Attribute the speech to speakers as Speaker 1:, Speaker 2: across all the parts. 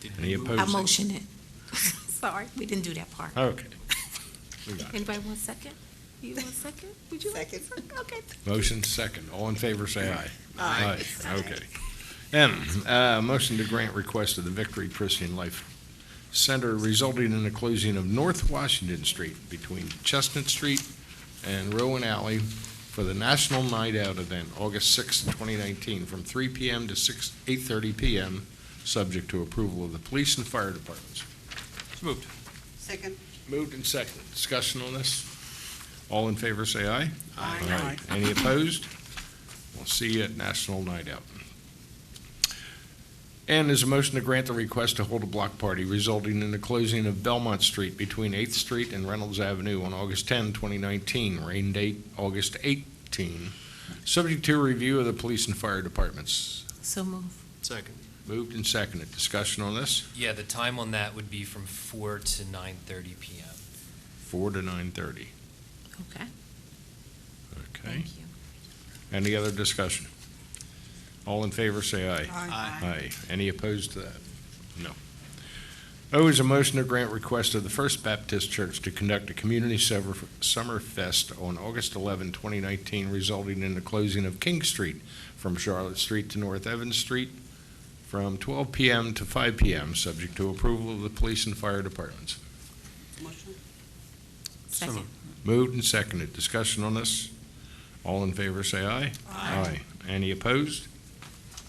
Speaker 1: Did
Speaker 2: Any
Speaker 1: we move-
Speaker 2: opposed?
Speaker 1: Who
Speaker 3: I
Speaker 2: second?
Speaker 3: motion it. Sorry, we didn't do that part.
Speaker 2: Okay. We got it.
Speaker 3: Anybody want a second? You want a second? Would you like a second? Okay.
Speaker 2: Motion second. All in favor, say aye.
Speaker 3: Aye.
Speaker 2: Okay. M, uh, motion to grant request of the Victory Christian Life Center resulting in the closing of North Washington Street between Chestnut Street and Rowan Alley for the National Night Out event, August sixth, 2019, from 3 PM to 6, 8:30 PM, subject to approval of the police and fire departments.
Speaker 1: So moved.
Speaker 4: Second.
Speaker 2: Moved and seconded. Discussion on this? All in favor, say aye.
Speaker 4: Aye. Aye.
Speaker 2: Any opposed? We'll see you at National Night Out. And there's a motion to grant the request to hold a block party resulting in the closing of Belmont Street between 8th Street and Reynolds Avenue on August 10, 2019, rain date August 18, subject to review of the police and fire departments.
Speaker 3: So move.
Speaker 1: Second.
Speaker 2: Moved and seconded. Discussion on this?
Speaker 5: Yeah, the time on that would be from four to nine thirty PM.
Speaker 2: 4 to 9:30.
Speaker 3: Okay,
Speaker 2: Okay.
Speaker 3: thank you.
Speaker 2: Any other discussion? All in favor, say aye.
Speaker 1: Aye.
Speaker 2: Aye. Any opposed to that? No. O is a motion to grant request of the First Baptist Church to conduct a community sever- summer fest on August 11, 2019, resulting in the closing of King Street from Charlotte Street to North Evans Street from 12 PM to 5 PM, subject to approval of the police and fire departments.
Speaker 4: Motion.
Speaker 1: So
Speaker 3: Second.
Speaker 1: moved.
Speaker 2: Moved and seconded. Discussion on this? All in favor, say aye. Aye. Any opposed?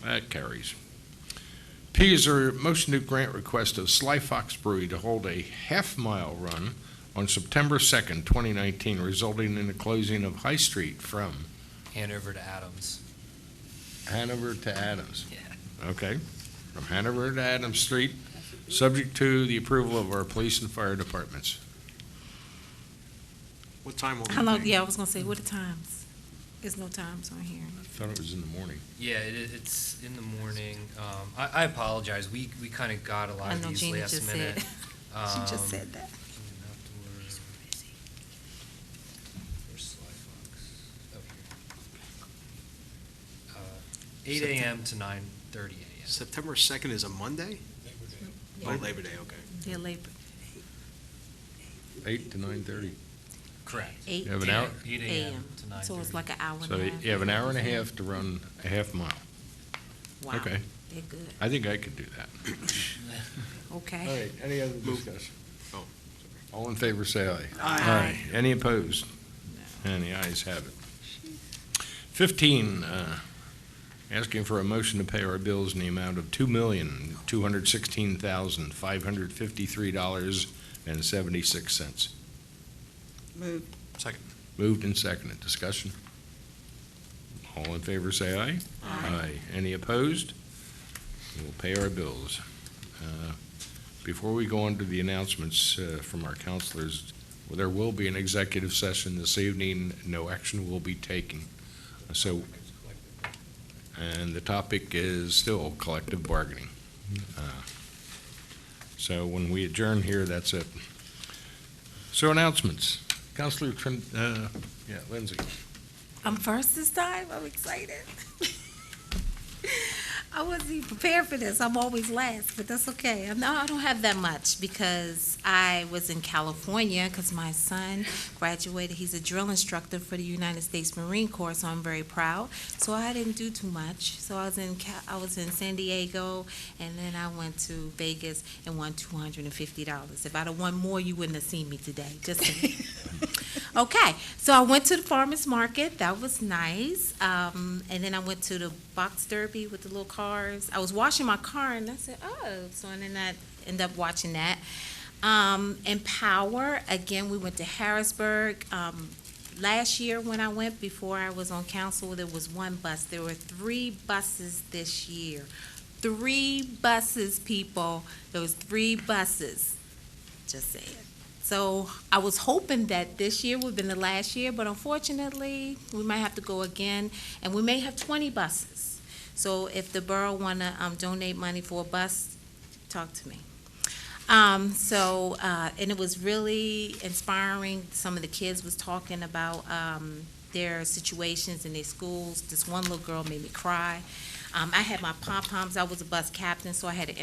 Speaker 2: That carries. P is a motion to grant request of Sly Fox Brewery to hold a half-mile run on September 2nd, 2019, resulting in the closing of High Street from
Speaker 5: Hanover to Adams.
Speaker 2: Hanover to Adams.
Speaker 5: Yeah.
Speaker 2: Okay, from Hanover to Adams Street, subject to the approval of our police and fire departments.
Speaker 1: What time will
Speaker 3: How long,
Speaker 1: that be?
Speaker 3: yeah, I was gonna say, what are times? There's no times on here.
Speaker 2: I thought it was in the morning.
Speaker 5: Yeah, it, i- it's in the morning. Um, I, I apologize. We, we kind of got a lot
Speaker 3: I
Speaker 5: of
Speaker 3: know
Speaker 5: these
Speaker 3: Gina
Speaker 5: last
Speaker 3: just said,
Speaker 5: minute.
Speaker 3: she just
Speaker 5: Um,
Speaker 3: said that.
Speaker 5: outdoor- where's Sly Fox? Up here. Uh, Eight AM to nine thirty AM.
Speaker 1: September 2nd is a Monday? Oh,
Speaker 3: Yeah,
Speaker 1: Labor Day, okay.
Speaker 3: They're labor,
Speaker 2: 8 to 9:30.
Speaker 5: Correct.
Speaker 3: eight
Speaker 2: You have an hour?
Speaker 5: Eight AM
Speaker 3: AM,
Speaker 5: to nine thirty.
Speaker 3: so it's like an hour and
Speaker 2: So
Speaker 3: a
Speaker 2: you
Speaker 3: half.
Speaker 2: have an hour and a half to run a half mile.
Speaker 3: Wow,
Speaker 2: okay.
Speaker 3: They're good,
Speaker 2: I think I could do that. All
Speaker 3: okay.
Speaker 2: right, any other
Speaker 1: Move.
Speaker 2: discussion?
Speaker 1: Oh,
Speaker 2: All in favor, say aye.
Speaker 3: Aye.
Speaker 2: Any opposed? And the ayes have it. Fifteen, uh, asking for a motion to pay our bills in the amount of two million, two hundred sixteen thousand, five hundred fifty-three dollars and seventy-six cents.
Speaker 4: Move.
Speaker 1: Second.
Speaker 2: Moved and seconded. Discussion? All in favor, say aye. Aye. Any opposed? We'll pay our bills. Uh, Before we go on to the announcements uh, from our counselors, well, there will be an executive session this evening. No action will be taken. So, and the topic is still collective bargaining. Uh, So when we adjourn here, that's it. So announcements. Counselor Trin, uh, yeah, Lindsay.
Speaker 3: I'm first this time, I'm excited. I wasn't even prepared for this, I'm always last, but that's okay. No, I don't have that much, because I was in California, because my son graduated, he's a drill instructor for the United States Marine Corps, so I'm very proud. So I didn't do too much, so I was in Ca- I was in San Diego, and then I went to Vegas and won two hundred and fifty dollars. If I'd have won more, you wouldn't have seen me today, just saying. Okay, so I went to the farmer's market, that was nice. Um, and then I went to the box derby with the little cars. I was washing my car and I said, oh, so and then I ended up watching that. Um, Empower, again, we went to Harrisburg. Um, last year when I went, before I was on council, there was one bus. There were three buses this year. Three buses, people. There was three buses. Just saying. So I was hoping that this year would have been the last year, but unfortunately, we might have to go again, and we may have twenty buses. So if the borough wanna, um, donate money for a bus, talk to me. Um, so, uh, and it was really inspiring, some of the kids was talking about, um, their situations in their schools. This one little girl made me cry. Um, I had my pom-poms, I was a bus captain, so I had an